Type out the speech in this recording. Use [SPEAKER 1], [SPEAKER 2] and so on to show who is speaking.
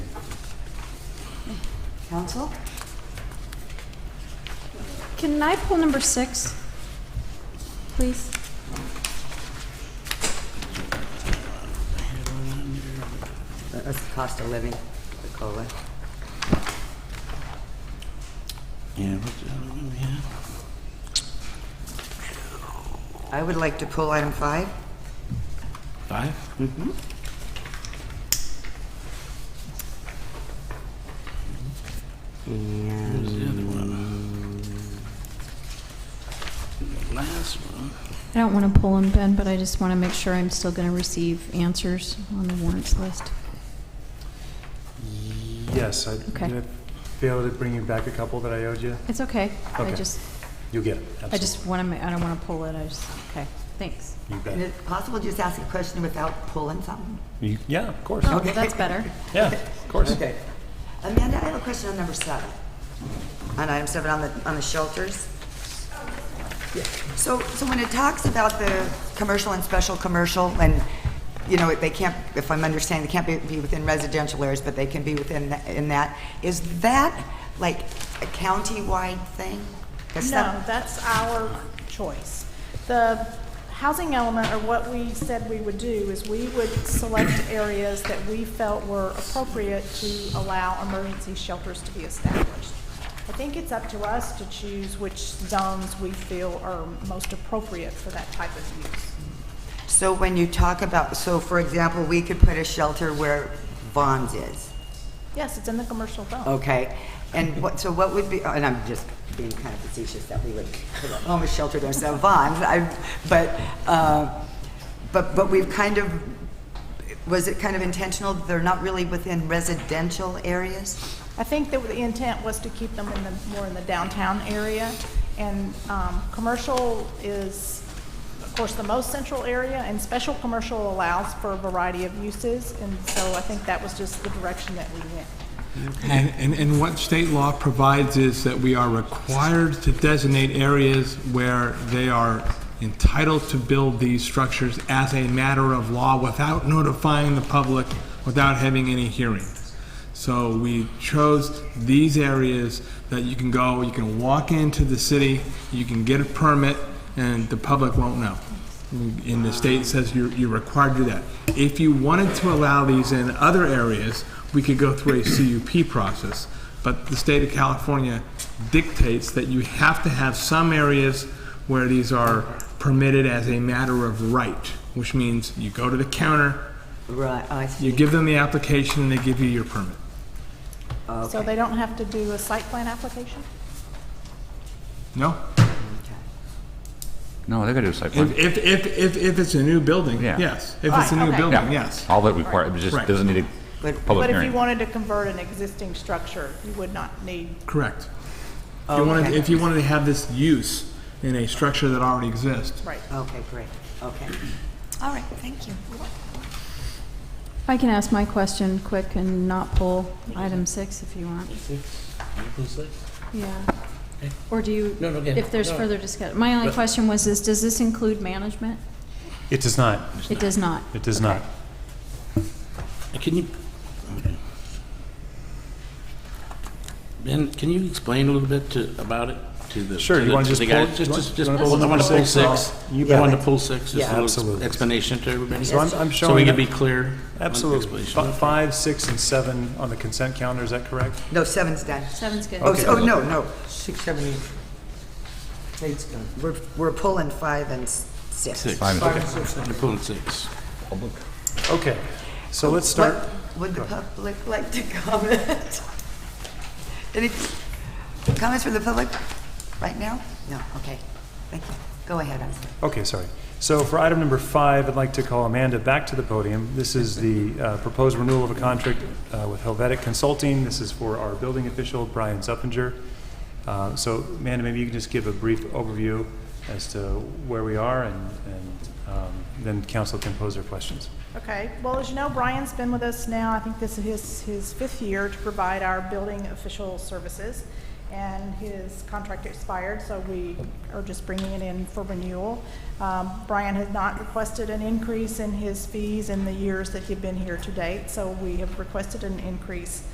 [SPEAKER 1] Council?
[SPEAKER 2] Can I pull number six, please?
[SPEAKER 1] That's the cost of living, the COLA.
[SPEAKER 3] Yeah, what's the other one we had?
[SPEAKER 1] I would like to pull item five.
[SPEAKER 3] Five? Mm-hmm.
[SPEAKER 1] And
[SPEAKER 3] What's the other one? The Last one.
[SPEAKER 2] I don't want to pull them, Ben, but I just want to make sure I'm still going to receive answers on the warrants list.
[SPEAKER 4] Yes, I
[SPEAKER 2] Okay.
[SPEAKER 4] did I fail to bring you back a couple that I owed you.
[SPEAKER 2] It's okay. I
[SPEAKER 4] Okay.
[SPEAKER 2] just,
[SPEAKER 4] You'll get it.
[SPEAKER 2] I just want to, I don't want to pull it, I just, okay, thanks.
[SPEAKER 4] You bet.
[SPEAKER 1] is it possible to just ask a question without pulling something?
[SPEAKER 4] You- Yeah, of course.
[SPEAKER 2] Oh, that's better.
[SPEAKER 4] Yeah, of course.
[SPEAKER 1] Okay. Amanda, I have a question on number seven. On item seven, on the, on the shelters. So, so when it talks about the commercial and special commercial, and, you know, they can't, if I'm understanding, they can't be, be within residential areas, but they can be within, tha- in that, is that like a county-wide thing? That's not-
[SPEAKER 5] No, that's our choice. The housing element, or what we said we would do, is we would select areas that we felt were appropriate to allow emergency shelters to be established. I think it's up to us to choose which zones we feel are most appropriate for that type of use.
[SPEAKER 1] So when you talk about, so for example, we could put a shelter where Vons is,
[SPEAKER 5] Yes, it's in the commercial zone.
[SPEAKER 1] okay? And what, so what would be, and I'm just being kind of facetious that we would put a homeless shelter there, so Vons, I, but, uh, but, but we've kind of, was it kind of intentional, they're not really within residential areas?
[SPEAKER 5] I think that the intent was to keep them in the, more in the downtown area. And um, commercial is, of course, the most central area, and special commercial allows for a variety of uses. And so I think that was just the direction that we went.
[SPEAKER 6] And, and, and what state law provides is that we are required to designate areas where they are entitled to build these structures as a matter of law without notifying the public, without having any hearings. So we chose these areas that you can go, you can walk into the city, you can get a permit, and the public won't know. And the state says you're, you're required to do that. If you wanted to allow these in other areas, we could go through a CUP process. But the state of California dictates that you have to have some areas where these are permitted as a matter of right, which means you go to the counter,
[SPEAKER 1] Right, I
[SPEAKER 6] you give them the application, and they give you your permit.
[SPEAKER 5] So they don't have to do a site plan application?
[SPEAKER 6] No?
[SPEAKER 7] No, they're gonna do a site plan.
[SPEAKER 6] If, if, if, if, if it's a new building,
[SPEAKER 7] Yeah.
[SPEAKER 6] yes. If it's a new
[SPEAKER 5] Right, okay.
[SPEAKER 7] Yeah.
[SPEAKER 6] building, yes.
[SPEAKER 7] All that required, it just
[SPEAKER 6] Right.
[SPEAKER 7] doesn't need a
[SPEAKER 1] But-
[SPEAKER 7] public
[SPEAKER 5] But if you
[SPEAKER 7] hearing.
[SPEAKER 5] wanted to convert an existing structure, you would not need,
[SPEAKER 6] Correct. If you wanted,
[SPEAKER 1] Okay.
[SPEAKER 6] if you wanted to have this use in a structure that already exists,
[SPEAKER 5] right.
[SPEAKER 1] Okay, great, okay. All right, thank you.
[SPEAKER 2] I can ask my question quick and not pull item six if you want. Yeah. Or do you,
[SPEAKER 3] No, no, again,
[SPEAKER 2] if there's
[SPEAKER 3] no.
[SPEAKER 2] further discussion, my only question was, is, does this include management?
[SPEAKER 4] It does not.
[SPEAKER 2] It does not.
[SPEAKER 4] It does not.
[SPEAKER 3] Can you? okay. Ben, can you explain a little bit to, about it to the?
[SPEAKER 4] Sure, you
[SPEAKER 3] the-
[SPEAKER 4] wanna just
[SPEAKER 3] the guys?
[SPEAKER 4] pull- you
[SPEAKER 3] Just, just,
[SPEAKER 4] wanna
[SPEAKER 3] just- I
[SPEAKER 4] pull
[SPEAKER 3] want to pull
[SPEAKER 4] number six?
[SPEAKER 3] six. You
[SPEAKER 4] bet.
[SPEAKER 3] want to pull six, just
[SPEAKER 1] Yeah.
[SPEAKER 3] a little
[SPEAKER 4] Absolutely.
[SPEAKER 3] explanation to everybody?
[SPEAKER 4] So I'm- I'm
[SPEAKER 3] So we
[SPEAKER 4] showing
[SPEAKER 3] can
[SPEAKER 4] it-
[SPEAKER 3] be clear? on the
[SPEAKER 4] Absolutely.
[SPEAKER 3] explanation.
[SPEAKER 4] Fi- Five, six, and seven on the consent calendar, is that correct?
[SPEAKER 1] No, seven's done.
[SPEAKER 2] Seven's good.
[SPEAKER 1] Oh, s- oh, no, no. Six, seven, eight. Eight's done. We're, we're pulling five and s-
[SPEAKER 3] Six.
[SPEAKER 7] Fine.
[SPEAKER 3] You're pulling six.
[SPEAKER 4] Okay, so let's start.
[SPEAKER 1] What Would the public like to comment? Any comments from the public right now? No, okay, thank you. Go ahead, I'm sorry.
[SPEAKER 4] Okay, sorry. So for item number five, I'd like to call Amanda back to the podium. This is the uh, proposed renewal of a contract uh, with Helvetic Consulting. This is for our building official, Brian Zuppinger. Uh, So Amanda, maybe you can just give a brief overview as to where we are, and and, um, then council can pose their questions.
[SPEAKER 5] Okay, well, as you know, Brian's been with us now, I think this is his, his fifth year to provide our building official services, and his contract expired, so we are just bringing it in for renewal. Um, Brian has not requested an increase in his fees in the years that he've been here to date, so we have requested an increase